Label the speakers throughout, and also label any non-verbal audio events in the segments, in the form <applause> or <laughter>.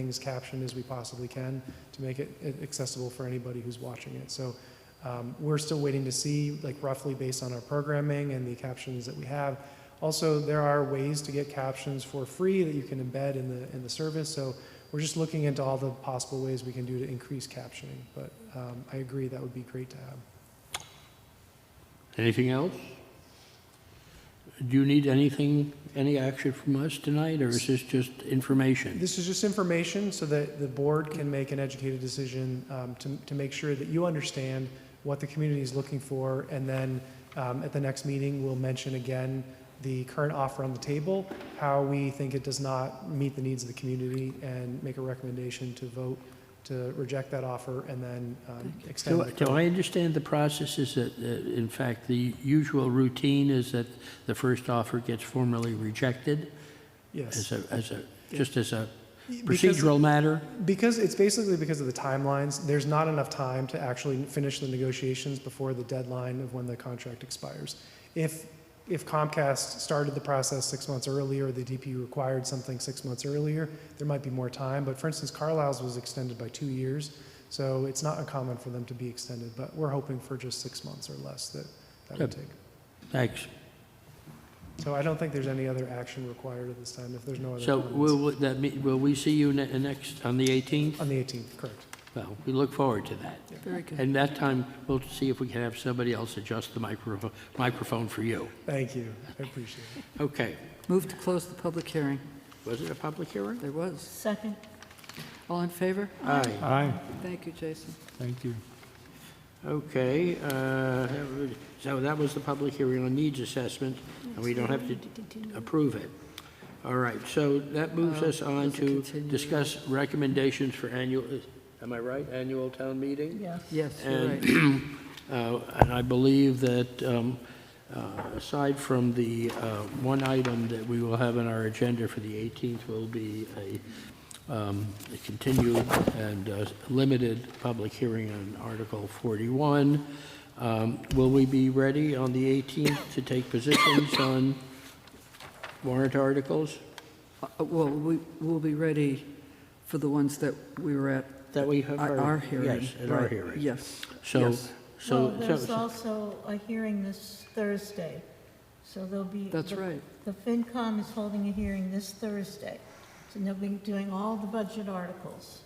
Speaker 1: things captioned as we possibly can to make it it accessible for anybody who's watching it. So um, we're still waiting to see, like roughly based on our programming and the captions that we have. Also, there are ways to get captions for free that you can embed in the in the service. So we're just looking into all the possible ways we can do to increase captioning. But um, I agree that would be great to have.
Speaker 2: Anything else? Do you need anything, any action from us tonight, or is this just information?
Speaker 1: This is just information so that the board can make an educated decision um, to, to make sure that you understand what the community is looking for. And then um, at the next meeting, we'll mention again the current offer on the table, how we think it does not meet the needs of the community, and make a recommendation to vote to reject that offer and then um, extend.
Speaker 2: Do
Speaker 1: the
Speaker 2: do I understand the process is that, uh, in fact, the usual routine is that the first offer gets formally rejected
Speaker 1: Yes.
Speaker 2: as a, as a, just as a
Speaker 1: Because-
Speaker 2: procedural matter?
Speaker 1: Because it's basically because of the timelines, there's not enough time to actually finish the negotiations before the deadline of when the contract expires. If, if Comcast started the process six months earlier, the DP required something six months earlier, there might be more time. But for instance, Carlisle's was extended by two years, so it's not uncommon for them to be extended. But we're hoping for just six months or less that that would
Speaker 2: Good.
Speaker 1: take.
Speaker 2: Thanks.
Speaker 1: So I don't think there's any other action required at this time, if there's no other
Speaker 2: So will,
Speaker 1: comments.
Speaker 2: will that, me- will we see you ne- next, on the 18th?
Speaker 1: On the 18th, correct.
Speaker 2: Well, we look forward to that.
Speaker 3: Very good.
Speaker 2: And that time, we'll see if we can have somebody else adjust the microphone, microphone for you.
Speaker 1: Thank you, I appreciate it.
Speaker 2: Okay.
Speaker 3: Move to close the public hearing.
Speaker 2: Was it a public hearing?
Speaker 3: There was.
Speaker 4: Second.
Speaker 3: All in favor?
Speaker 2: Aye.
Speaker 5: Aye,
Speaker 3: Thank you, Jason.
Speaker 5: thank you.
Speaker 2: Okay, uh, so that was the public hearing on needs assessment, and we don't have to approve it. All right, so that moves us on
Speaker 3: it's a
Speaker 2: to
Speaker 3: continuation.
Speaker 2: discuss recommendations for annual, am I right, annual town meeting?
Speaker 4: Yes.
Speaker 3: Yes, you're right.
Speaker 2: And, uh, and I believe that, um, uh, aside from the uh, one item that we will have on our agenda for the 18th will be a um, a continued and uh, limited public hearing on Article 41. Um, Will we be ready on the 18th to take positions on warrant articles
Speaker 3: Uh, Well, we will be ready for the ones that we were at,
Speaker 2: that we have?
Speaker 3: at our hearing.
Speaker 2: Yes, at our
Speaker 3: right.
Speaker 2: hearing.
Speaker 3: Yes,
Speaker 2: So,
Speaker 3: yes.
Speaker 2: so.
Speaker 4: Well, there's
Speaker 2: so-
Speaker 4: also a hearing this Thursday, so there'll be.
Speaker 3: That's
Speaker 4: the-
Speaker 3: right.
Speaker 4: The FinCom is holding a hearing this Thursday, so they'll be doing all the budget articles,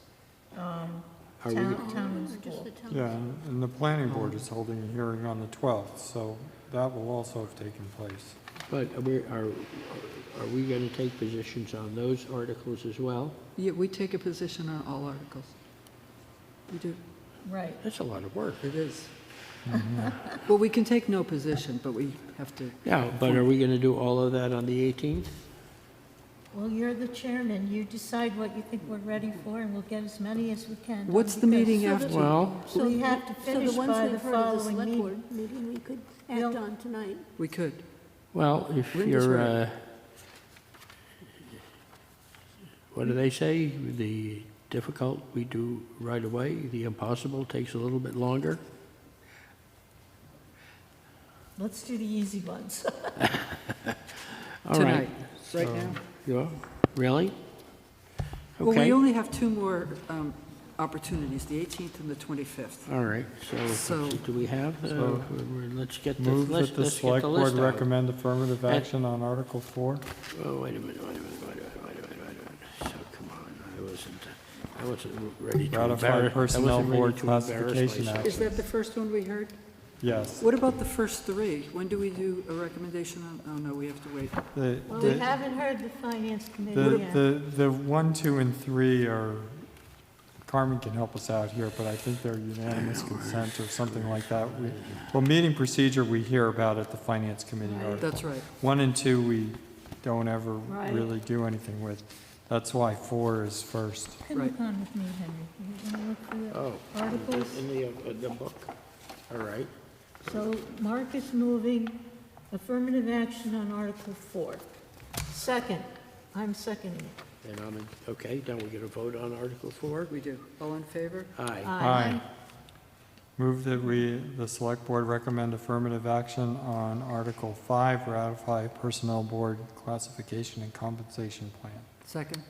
Speaker 4: um,
Speaker 2: Are we-
Speaker 4: town, town and school.
Speaker 5: Yeah, and the planning board is holding a hearing on the 12th, so that will also have taken place.
Speaker 2: But are we, are, are we going to take positions on those articles as well?
Speaker 3: Yeah, we take a position on all articles. We do.
Speaker 4: Right,
Speaker 2: That's a lot of work.
Speaker 3: It is.
Speaker 2: Mm-hmm.
Speaker 3: <laughs> Well, we can take no position, but we have to.
Speaker 2: Yeah, but are we going to do all of that on the 18th?
Speaker 4: well, you're the chairman, you decide what you think we're ready for, and we'll get as many as we can.
Speaker 3: What's the meeting
Speaker 6: So the-
Speaker 3: after?
Speaker 2: Well,
Speaker 4: So we have to
Speaker 6: So the
Speaker 4: finish
Speaker 6: ones
Speaker 4: by the
Speaker 6: we've heard of the
Speaker 4: following
Speaker 6: select
Speaker 4: meeting.
Speaker 6: board meeting, we could
Speaker 4: Bill?
Speaker 6: act on tonight.
Speaker 3: We could.
Speaker 2: well, if
Speaker 3: Linda's
Speaker 2: you're,
Speaker 3: right.
Speaker 2: uh, what do they say? The difficult we do right away, the impossible takes a little bit longer.
Speaker 4: Let's do the easy ones.
Speaker 2: All right.
Speaker 3: Tonight, right now.
Speaker 2: Yeah, really?
Speaker 3: Well,
Speaker 2: Okay.
Speaker 3: we only have two more um, opportunities, the 18th and the 25th.
Speaker 2: All right, so
Speaker 3: So-
Speaker 2: do we have, uh,
Speaker 5: So-
Speaker 2: we're- let's get the,
Speaker 5: Move
Speaker 2: let's
Speaker 5: that the
Speaker 2: let's get
Speaker 5: select
Speaker 2: the
Speaker 5: board
Speaker 2: list out.
Speaker 5: recommend affirmative
Speaker 2: And-
Speaker 5: action on Article 4.
Speaker 2: Oh, wait a minute, wait a minute, wait a minute, wait a minute, wait a minute. So, come on, I wasn't, I wasn't ready to embarrass. I
Speaker 5: Ratify
Speaker 2: wasn't
Speaker 5: personnel
Speaker 2: ready
Speaker 5: board
Speaker 2: to embarrass
Speaker 5: classification
Speaker 2: myself.
Speaker 3: Is
Speaker 5: action.
Speaker 3: that the first one we heard?
Speaker 5: Yes.
Speaker 3: What about the first three? When do we do a recommendation on, oh, no, we have to wait.
Speaker 5: The,
Speaker 4: Well, we
Speaker 5: the,
Speaker 4: haven't heard the finance committee
Speaker 5: the-
Speaker 4: yet.
Speaker 5: the, the 1, 2, and 3 are, Carmen can help us out here, but I think they're unanimous consent or something like that. We- Well, meeting procedure, we hear about at the finance committee article.
Speaker 3: That's right.
Speaker 5: One and two, we don't ever
Speaker 4: Right.
Speaker 5: really do anything with. That's why four is first.
Speaker 4: Come
Speaker 3: Right.
Speaker 4: on with me, Henry. You wanna look through it?
Speaker 2: Oh,
Speaker 4: Articles.
Speaker 2: in the, uh, the book, all right.
Speaker 4: So Mark is moving affirmative action on Article 4. Second, I'm seconding it.
Speaker 2: And I'm, in- okay, now we're gonna vote on Article Four?
Speaker 3: We do. All in favor?
Speaker 2: Aye.
Speaker 4: Aye.
Speaker 5: Move that we, the select board recommend affirmative action on Article Five, ratify personnel board classification and compensation plan.
Speaker 3: Second?